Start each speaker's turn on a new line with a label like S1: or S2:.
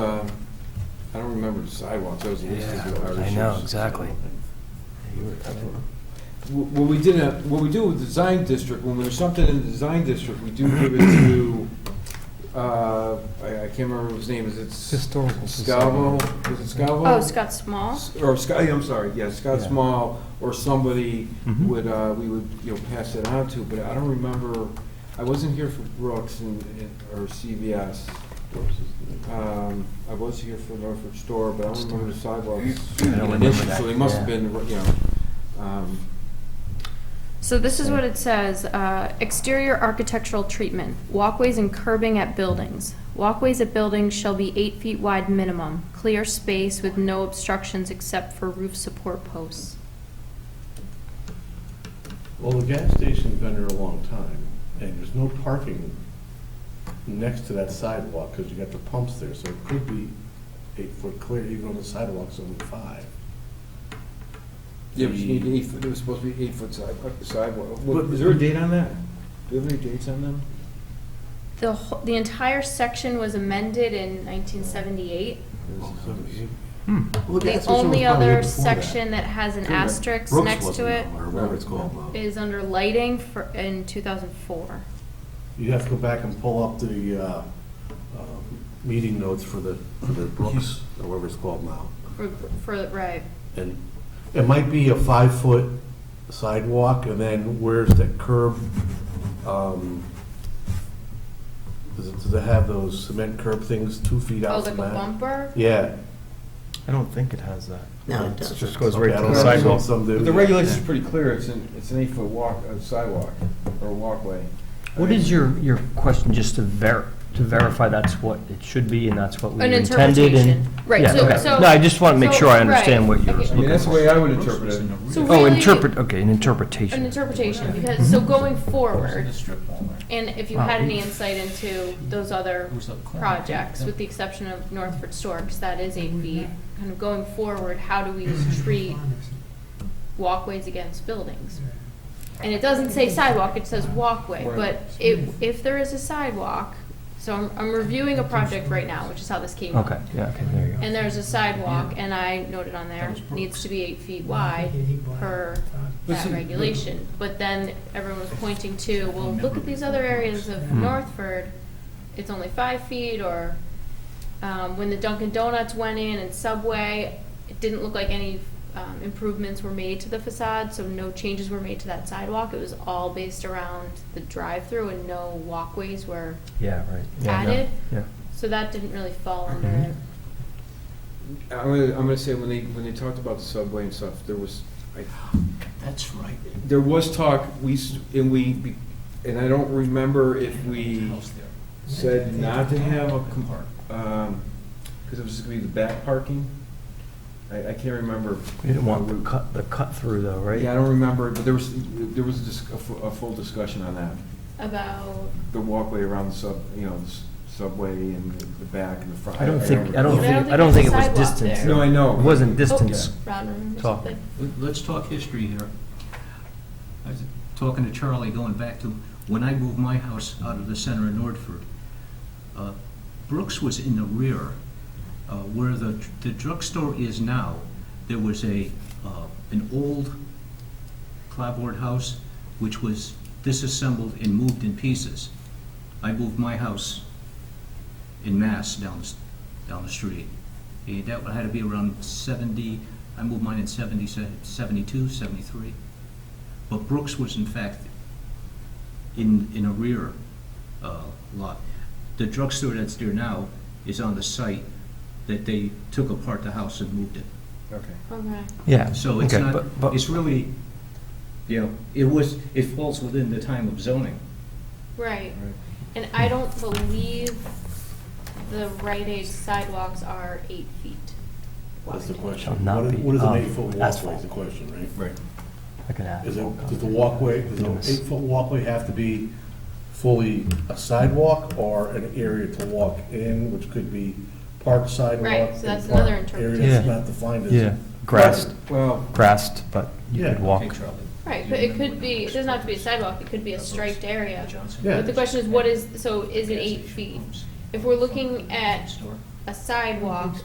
S1: Um, remember sidewalks, that was the least of our
S2: I
S1: issues.
S2: know, exactly.
S1: Wh- What we did, in a- what we do with the design district, when there's something in the design district, we do give it to, uh, I I can't remember what his name is, it's
S2: Historical
S1: Scavo, is it Scavo?
S3: Oh, Scott Small?
S1: S- Or Scott, I'm sorry, yeah, Scott
S2: Yeah. Mm-hmm.
S1: Small or somebody
S4: Mhm.
S1: would, uh, we would, you know, pass it on to, but I don't remember, I wasn't here for Brooks and, and- or CVS. Um, I was here for Norfolk Store, but I don't remember the sidewalks.
S2: I don't
S1: in
S2: remember
S1: addition,
S2: that,
S1: So they must have
S2: yeah.
S1: been, you know, um,
S3: So this is what it says, uh, exterior architectural treatment, walkways and curbing at buildings. Walkways at buildings shall be eight feet wide minimum, clear space with no obstructions except for roof support posts.
S5: Well, the gas station's been there a long time, and there's no parking next to that sidewalk, because you got the pumps there, so it could be eight foot clear, even though the sidewalk's only five.
S1: yeah, but you need eight, foot- it was supposed to be eight foot sidewalk, sidewalk. What-
S5: But-
S1: Is there a date on that? Do you have any dates on them?
S3: The, wh- the entire section was amended in 1978.
S1: Oh,
S3: The only other section that has an asterisk next to it
S6: Or whatever it's called. uh,
S3: is under lighting for, in 2004.
S5: You have to go back and pull up the, uh, uh, meeting notes for the, for the Brooks, or whatever it's called now.
S3: For, for, right.
S5: And it might be a five-foot sidewalk, and then where's the curb? um, Does it, does it have those cement curb things two feet
S3: Oh,
S5: out
S3: like a
S5: from that?
S3: bumper?
S5: Yeah.
S4: I don't think it has that.
S6: No, it
S4: It
S6: doesn't.
S4: just goes
S5: Okay,
S4: right
S5: I
S4: to
S5: don't
S4: the
S5: know, some-
S4: sidewalk.
S5: some do.
S1: But the regulation's pretty clear, it's an, it's an eight foot walk, uh, sidewalk, or walkway.
S2: What is your, your question, just to ver, to verify that's what it should be and that's what we
S3: An
S2: intended? and-
S3: interpretation. Right,
S2: Yeah,
S3: so-
S2: okay.
S3: so-
S2: No, I just want to make
S3: so-
S2: sure I understand
S3: right.
S2: what you're
S3: Okay.
S1: I mean,
S2: looking
S1: that's the
S2: for.
S1: way I would interpret it.
S3: So
S2: Oh,
S3: really-
S2: interpret, Hmm. okay, an
S3: An
S2: interpretation.
S3: interpretation, because, so going forward,
S7: strip mall there.
S3: and if you
S2: Wow.
S3: had any insight into those other
S7: Who's up corner?
S3: projects, with the exception of Northford Store, because that is eight
S2: Mm-hmm.
S3: feet, kind of going forward, how do we treat walkways against buildings? And it doesn't say sidewalk, it says walkway, but if, if there is a sidewalk, so I'm, I'm reviewing a project right now, which is how this came up.
S2: Okay, yeah, okay, there you go.
S3: And there's a sidewalk, and I noted on
S7: That
S3: there,
S7: was Brooks.
S3: needs to be eight feet wide per that
S1: Listen,
S3: regulation. But then everyone was pointing to, well, look at these other areas of
S2: Hmm.
S3: Northford, it's only five feet, or um, when the Dunkin' Donuts went in and Subway, it didn't look like any um, improvements were made to the facade, so no changes were made to that sidewalk. It was all based around the drive-through and no walkways were,
S2: Yeah, right. Yeah, I know.
S3: Added?
S2: Yeah.
S3: so that didn't really fall under
S2: Mhm.
S3: it.
S1: I'm gonna, I'm gonna say, when they, when they talked about the subway and stuff, there was, I,
S7: That's right.
S1: there was talk, we, s- and we, be- and I don't remember if we
S7: House there.
S1: said not to have a, com- um, cause it was gonna be the back parking. I, I can't remember.
S2: We didn't want the cut, the cut through though, right?
S1: Yeah, I don't remember, but there was, there was a dis- a, fu- a full discussion on that.
S3: About,
S1: The walkway around the sub, you know, the s- subway and the the back and the front.
S2: I don't think, I don't
S3: But I
S2: think,
S3: don't
S2: I don't
S3: think
S2: think it was
S3: there's a sidewalk
S2: distance.
S3: there.
S1: No, I know.
S2: It wasn't distance.
S3: Ron, remember
S2: Talk.
S3: something?
S7: Let- Let's talk history here. I was talking to Charlie, going back to when I moved my house out of the center of Nordford. uh, Brooks was in the rear, uh, where the, the drugstore is now. There was a, uh, an old clapboard house, which was disassembled and moved in pieces. I moved my house in Mass down, the s- down the street. And that had to be around 70, I moved mine in 70, 72, 73. But Brooks was in fact in, in a rear uh, lot. The drugstore that's there now is on the site that they took apart the house and moved it.
S1: Okay.
S3: Okay.
S2: Yeah.
S7: So it's
S2: okay,
S7: not,
S2: but- but-
S7: it's really, you know, it was, it falls within the time of zoning.
S3: Right, and I don't believe the right age sidewalks are eight feet.
S5: That's the
S2: Shall
S5: question.
S2: not
S5: What is-
S2: be
S5: What is an
S2: of
S5: eight-foot walkway
S2: um, asphalt.
S5: is the question, right?
S1: Right.
S2: I can add.
S5: Is
S2: more
S5: it, does the
S2: comment.
S5: walkway, does an
S2: Yes.
S5: eight-foot walkway have to be fully a sidewalk or an area to walk in, which could be park sidewalk?
S3: Right, so that's
S5: and park
S3: another
S5: Area that's
S2: interpretation. Yeah.
S5: not defined as.
S2: Yeah, grassed,
S1: Well,
S2: grassed, but you
S5: Yeah,
S2: could
S5: okay,
S2: walk.
S7: Hey, Charlie.
S3: Right, but it could be, it doesn't have to be a sidewalk, it could be a striped area.
S7: Johnson.
S5: Yeah.
S3: But the question is, what is, so is it eight feet? If we're looking at a sidewalk,